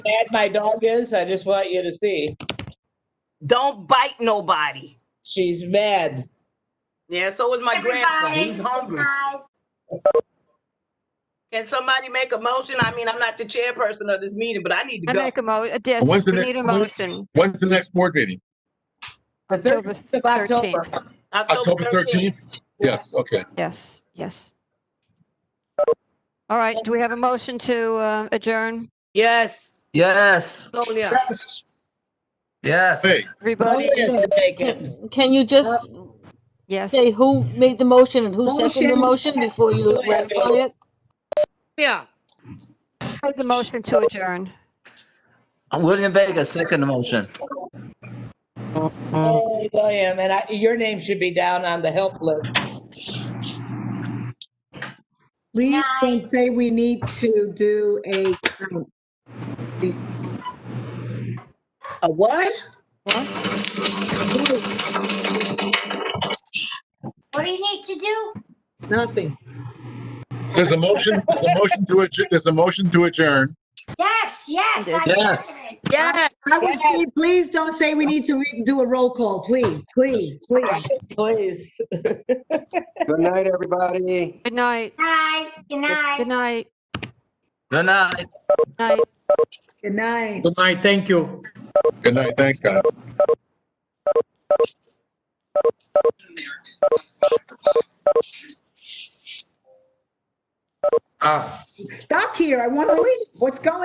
mad my dog is? I just want you to see. Don't bite nobody. She's mad. Yeah, so is my grandson. He's hungry. Can somebody make a motion? I mean, I'm not the chairperson of this meeting, but I need I to go. make a mo, uh, yes, When's the we next need a one? motion. When's the next board meeting? The October 30th of October. 13th. October 13th? Yes, okay. Yes, yes. All right, do we have a motion to uh, adjourn? Yes. Yes, Sonia. Yes. yes. Hey, Oh, Everybody, Motion taken. Can can you just yes. say who made the motion and who seconded the motion before you ratify it? Yeah. Made The motion to adjourn. William Vega, second motion. Oh, William, and I, your name should be down on the help list. Please don't say we need to do a count. Please. A what? What do you need to do? Nothing. there's a motion, there's a motion to adjourn, there's a motion to adjourn. Yes, yes, I Yes. did it. Yes. I would say, please don't say we need to re- do a roll call, please, please, please. Please. Good night, everybody. Good night, Night, good night. good night, good Good night. night. Good night. Good night, thank you. Good night, thanks, guys. Ah. Stop here. I want to leave. What's going?